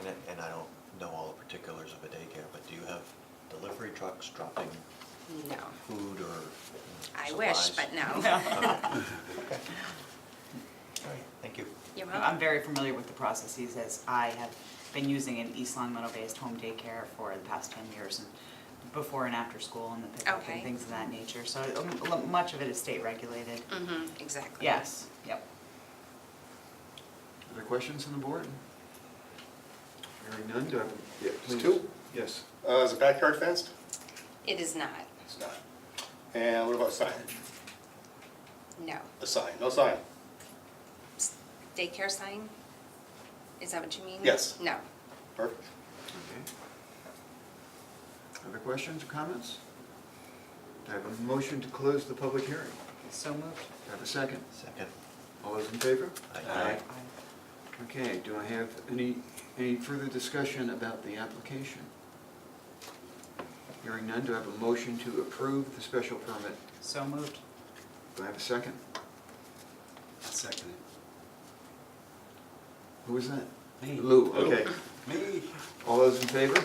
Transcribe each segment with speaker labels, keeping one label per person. Speaker 1: And, I- and I don't know all the particulars of a daycare, but do you have delivery trucks dropping
Speaker 2: No.
Speaker 1: food or
Speaker 2: I wish,
Speaker 1: supplies?
Speaker 2: but no.
Speaker 1: Okay.
Speaker 3: No.
Speaker 1: Okay. All right, thank you.
Speaker 2: You're
Speaker 3: I'm
Speaker 2: welcome.
Speaker 3: very familiar with the processes as I have been using an East Long Meadow-based home daycare for the past 10 years and before and after school and the pickup and
Speaker 2: Okay.
Speaker 3: things of that nature. So um, lo- much of it is state regulated.
Speaker 2: hmm exactly.
Speaker 3: Yes, yep.
Speaker 4: Other questions on the board? Hearing none, do I? Yeah, please.
Speaker 5: two.
Speaker 4: Yes.
Speaker 5: Uh, is the backyard fenced?
Speaker 2: It is not,
Speaker 5: It's not. And what about signage?
Speaker 2: no.
Speaker 5: A sign, no sign?
Speaker 2: S- Daycare sign? Is that what you mean?
Speaker 5: Yes.
Speaker 2: No.
Speaker 5: Perfect.
Speaker 4: Okay. Other questions or comments? Do I have a motion to close the public hearing?
Speaker 3: So moved.
Speaker 4: Do I have a second?
Speaker 1: Second.
Speaker 4: All those in favor?
Speaker 1: Aye.
Speaker 4: Okay, do I have any, any further discussion about the application? Hearing none, do I have a motion to approve the special permit?
Speaker 3: So moved.
Speaker 4: Do I have a second?
Speaker 6: I'll second it.
Speaker 4: Who was that?
Speaker 6: Me.
Speaker 4: Lou, okay.
Speaker 6: Me.
Speaker 4: All those in favor?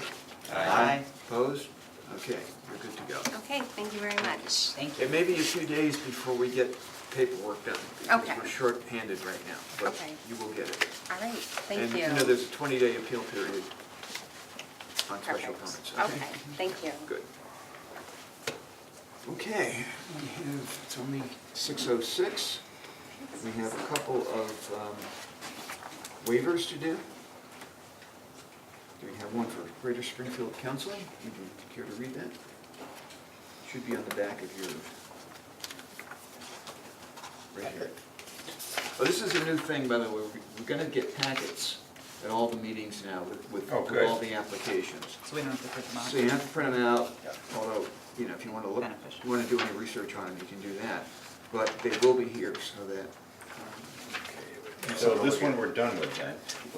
Speaker 3: Aye.
Speaker 4: Opposed? Okay, we're good to go.
Speaker 2: Okay, thank you very much.
Speaker 3: Thank you.
Speaker 4: It may be a few days before we get paperwork done. because
Speaker 2: Okay.
Speaker 4: We're shorthanded right now, but
Speaker 2: Okay.
Speaker 4: you will get it.
Speaker 2: All right, thank
Speaker 4: And
Speaker 2: you.
Speaker 4: you know, there's a 20-day appeal period on special
Speaker 2: Perfect.
Speaker 4: permits.
Speaker 2: Okay, thank you.
Speaker 4: Good. Okay, we have, it's only 6:06. We have a couple of um, waivers to do. Do we have one for Greater Springfield Council? Would you care to read that? Should be on the back of your, right here. Oh, this is a new thing, by the way. We're- We're going to get packets at all the meetings now with, with
Speaker 6: Oh,
Speaker 4: with
Speaker 6: good.
Speaker 4: all the applications.
Speaker 3: So we don't have to put them on.
Speaker 4: So you have to print them out, although, you know, if you want to look,
Speaker 3: Beneficial.
Speaker 4: you want to do any research on them, you can do that. But they will be here so that. um,
Speaker 6: So this one we're done with then?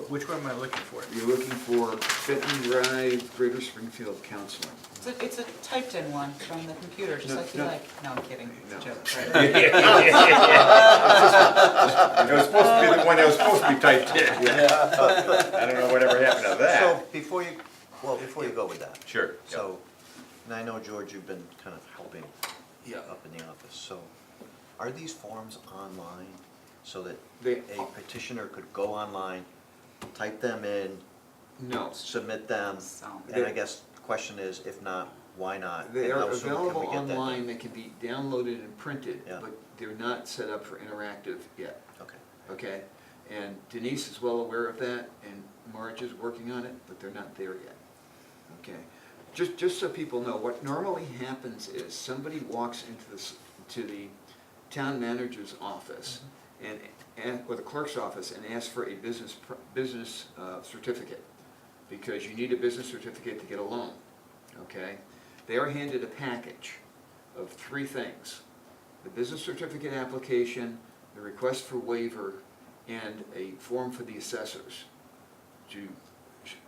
Speaker 7: Which one am I looking for?
Speaker 4: You're looking for Benton Drive, Greater Springfield Counseling.
Speaker 3: It's a- It's a typed-in one from the computer, just
Speaker 4: No,
Speaker 3: like you
Speaker 4: no.
Speaker 3: like. No, I'm kidding. It's a
Speaker 4: No.
Speaker 3: joke. right?
Speaker 6: It was supposed to be the one that was supposed to be typed in. I don't know whatever happened to
Speaker 1: So
Speaker 6: that.
Speaker 1: before you, well, before you go with that.
Speaker 6: Sure, yeah.
Speaker 1: So, and I know, George, you've been kind of helping
Speaker 4: Yeah.
Speaker 1: up in the office, so are these forms online so that
Speaker 4: They-
Speaker 1: a petitioner could go online, type them in,
Speaker 4: No,
Speaker 1: submit them?
Speaker 3: So-
Speaker 1: And I guess the question is, if not, why not?
Speaker 4: they
Speaker 1: And
Speaker 4: are
Speaker 1: how soon can we
Speaker 4: available
Speaker 1: get uh, that done?
Speaker 4: online, they can be downloaded and printed,
Speaker 1: Yeah.
Speaker 4: but they're not set up for interactive yet,
Speaker 1: Okay,
Speaker 4: okay? And Denise is well aware of that, and Marge is working on it, but they're not there yet. Okay, just, just so people know, what normally happens is somebody walks into this, to the town manager's office
Speaker 1: Mm-hmm.
Speaker 4: and, and, or the clerk's office and asks for a business, pr- business uh, certificate. Because you need a business certificate to get a loan, okay? They are handed a package of three things. The business certificate application, the request for waiver, and a form for the assessors to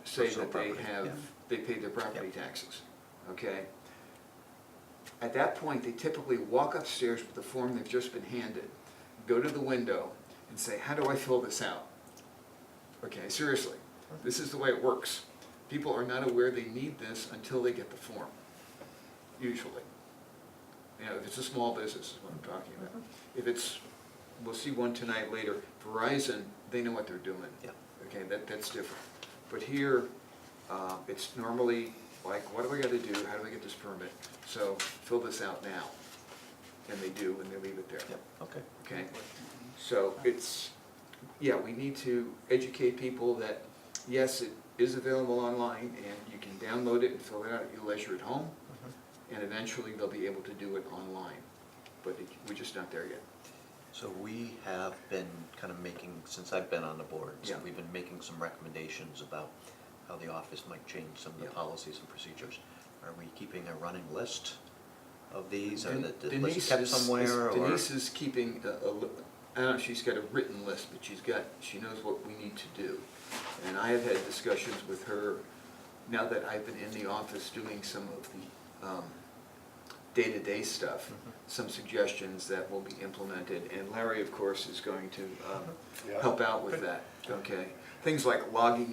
Speaker 4: say
Speaker 1: Personal
Speaker 4: that they
Speaker 1: property,
Speaker 4: have,
Speaker 1: yeah.
Speaker 4: they pay their property taxes, okay? At that point, they typically walk upstairs with the form they've just been handed, go to the window, and say, how do I fill this out? Okay, seriously, this is the way it works. People are not aware they need this until they get the form, usually. You know, if it's a small business is what I'm talking about.
Speaker 1: Mm-hmm.
Speaker 4: If it's, we'll see one tonight later, Verizon, they know what they're doing.
Speaker 1: Yeah.
Speaker 4: Okay, that, that's different. But here, uh, it's normally like, what do I gotta do? How do I get this permit? So fill this out now. And they do, and they leave it there.
Speaker 1: yep, okay.
Speaker 4: Okay? So it's, yeah, we need to educate people that, yes, it is available online, and you can download it and fill it out at your leisure at home, and eventually they'll be able to do it online, but it- we're just not there yet.
Speaker 1: So we have been kind of making, since I've been on the board, so
Speaker 4: Yeah.
Speaker 1: we've been making some recommendations about how the office might change some of the
Speaker 4: Yeah.
Speaker 1: policies and procedures. Are we keeping a running list of these, or
Speaker 4: Den-
Speaker 1: that the
Speaker 4: Denise
Speaker 1: list kept
Speaker 4: is-
Speaker 1: somewhere,
Speaker 4: is-
Speaker 1: or?
Speaker 4: Denise is keeping a, a li- I don't know, she's got a written list, but she's got, she knows what we need to do. And I have had discussions with her, now that I've been in the office doing some of the, um, day-to-day stuff,
Speaker 1: Mm-hmm.
Speaker 4: some suggestions that will be implemented, and Larry, of course, is going to, um,
Speaker 5: Yeah.
Speaker 4: help out with that, okay? Things like logging